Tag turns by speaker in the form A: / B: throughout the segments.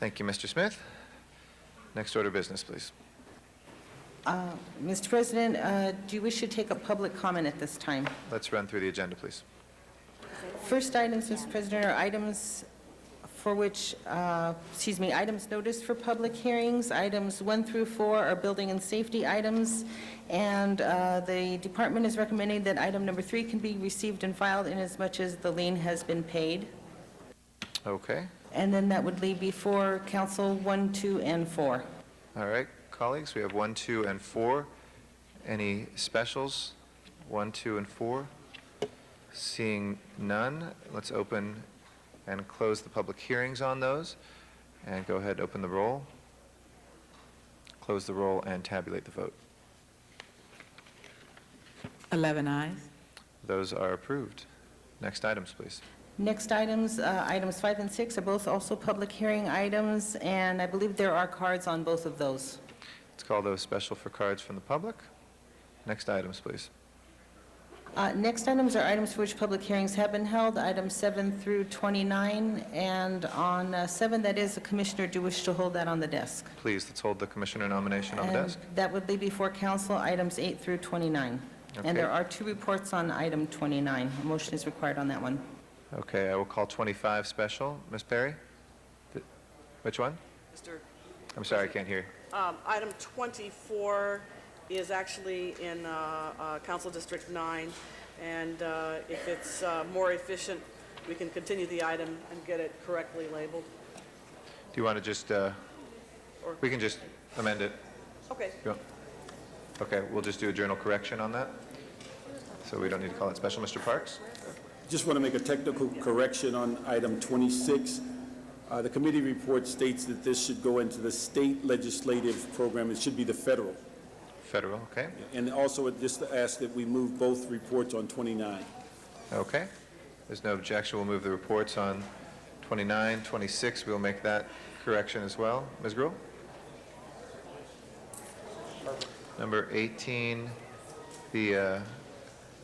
A: Thank you, Mr. Smith. Next order of business, please.
B: Mr. President, uh, do you wish to take a public comment at this time?
A: Let's run through the agenda, please.
B: First items, Mr. President, are items for which, uh, excuse me, items noticed for public hearings. Items one through four are building and safety items, and uh, the department is recommending that item number three can be received and filed inasmuch as the lien has been paid.
A: Okay.
B: And then that would leave before council one, two, and four.
A: All right, colleagues, we have one, two, and four. Any specials? One, two, and four? Seeing none, let's open and close the public hearings on those. And go ahead, open the roll, close the roll, and tabulate the vote.
C: 11 eyes.
A: Those are approved. Next items, please.
B: Next items, uh, items five and six are both also public hearing items, and I believe there are cards on both of those.
A: Let's call those special for cards from the public. Next items, please.
B: Uh, Next items are items for which public hearings have been held, items seven through 29, and on uh, seven, that is, the commissioner do wish to hold that on the desk.
A: Please, let's hold the commissioner nomination on the
B: And
A: desk.
B: That would be before council, items eight through 29. And there
A: Okay.
B: are two reports on item 29. A motion is required on that one.
A: Okay, I will call 25 special. Ms. Perry? Th- Which one?
D: Mr.
A: I'm sorry, I can't hear.
D: Um, Item 24 is actually in uh, uh, Council District 9, and uh, if it's uh, more efficient, we can continue the item and get it correctly labeled.
A: Do you want to just, uh,
D: Or-
A: we can just amend it?
D: Okay,
A: You want- Okay, we'll just do a journal correction on that? So we don't need to call it special. Mr. Parks?
E: Just want to make a technical correction on item 26. Uh, The committee report states that this should go into the state legislative program. It should be the federal.
A: Federal, okay?
E: And also, it- just to ask that we move both reports on 29.
A: Okay. There's no objection. We'll move the reports on 29, 26. We'll make that correction as well. Ms. Gruhl? Number 18, the uh,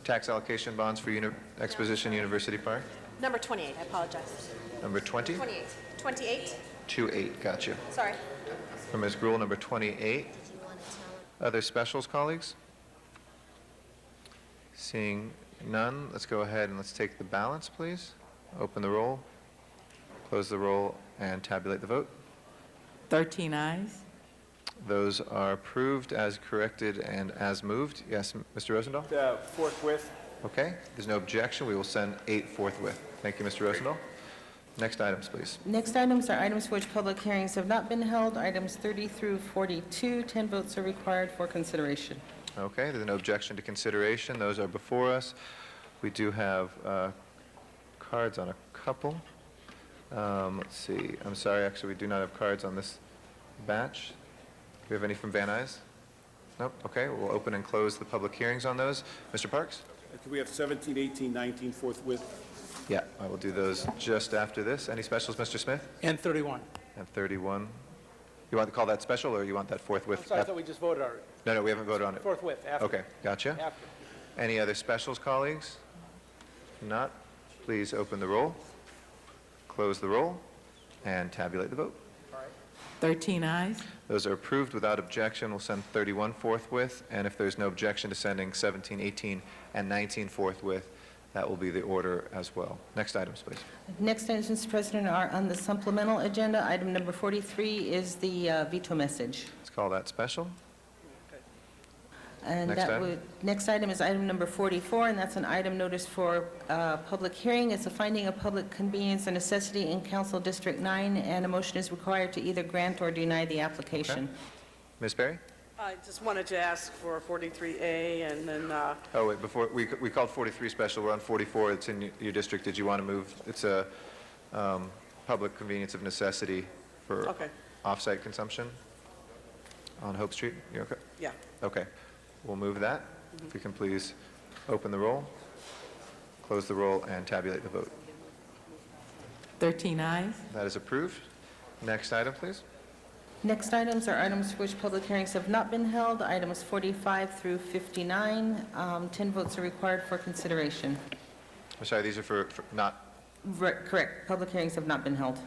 A: tax allocation bonds for Uni- Exposition University Park.
F: Number 28, I apologize.
A: Number 20?
F: 28, 28,
A: 28, got you.
F: sorry.
A: From Ms. Gruhl, number 28. Other specials, colleagues? Seeing none, let's go ahead and let's take the balance, please. Open the roll, close the roll, and tabulate the vote.
C: 13 eyes.
A: Those are approved as corrected and as moved. Yes, m- Mr. Rosendahl?
E: Forthwith.
A: Okay, there's no objection. We will send eight forthwith. Thank you, Mr. Rosendahl. Next items, please.
B: Next items are items for which public hearings have not been held, items 30 through 42. 10 votes are required for consideration.
A: Okay, there's no objection to consideration. Those are before us. We do have uh, cards on a couple. Um, Let's see, I'm sorry, actually, we do not have cards on this batch. Do we have any from Van Nuys? Nope, okay, we'll open and close the public hearings on those. Mr. Parks?
E: Could we have 17, 18, 19 forthwith?
A: Yeah, I will do those just after this. Any specials, Mr. Smith?
G: And 31.
A: And 31. You want to call that special, or you want that forthwith?
G: I'm sorry, I thought we just voted already.
A: No, no, we haven't voted on it.
G: Forthwith, after.
A: Okay, gotcha.
G: After.
A: Any other specials, colleagues? If Not? Please open the roll, close the roll, and tabulate the vote.
C: 13 eyes.
A: Those are approved without objection. We'll send 31 forthwith, and if there's no objection to sending 17, 18, and 19 forthwith, that will be the order as well. Next items, please.
B: Next items, Mr. President, are on the supplemental agenda. Item number 43 is the uh, veto message.
A: Let's call that special.
B: And
A: Next
B: that
A: item.
B: would, next item is item number 44, and that's an item notice for uh, public hearing. It's a finding of public convenience and necessity in Council District 9, and a motion is required to either grant or deny the application.
A: Ms. Berry?
D: I just wanted to ask for 43A and then uh,
A: Oh, wait, before, we we called 43 special, we're on 44, it's in y- your district. Did you want to move? It's a um, public convenience of necessity for
D: Okay.
A: off-site consumption on Hope Street? You okay?
D: Yeah.
A: Okay, we'll move that. If you can please open the roll, close the roll, and tabulate the vote.
C: 13 eyes.
A: That is approved. Next item, please.
B: Next items are items for which public hearings have not been held, items 45 through 59. Um, 10 votes are required for consideration.
A: I'm sorry, these are for for not
B: Re- Correct, public hearings have not been held.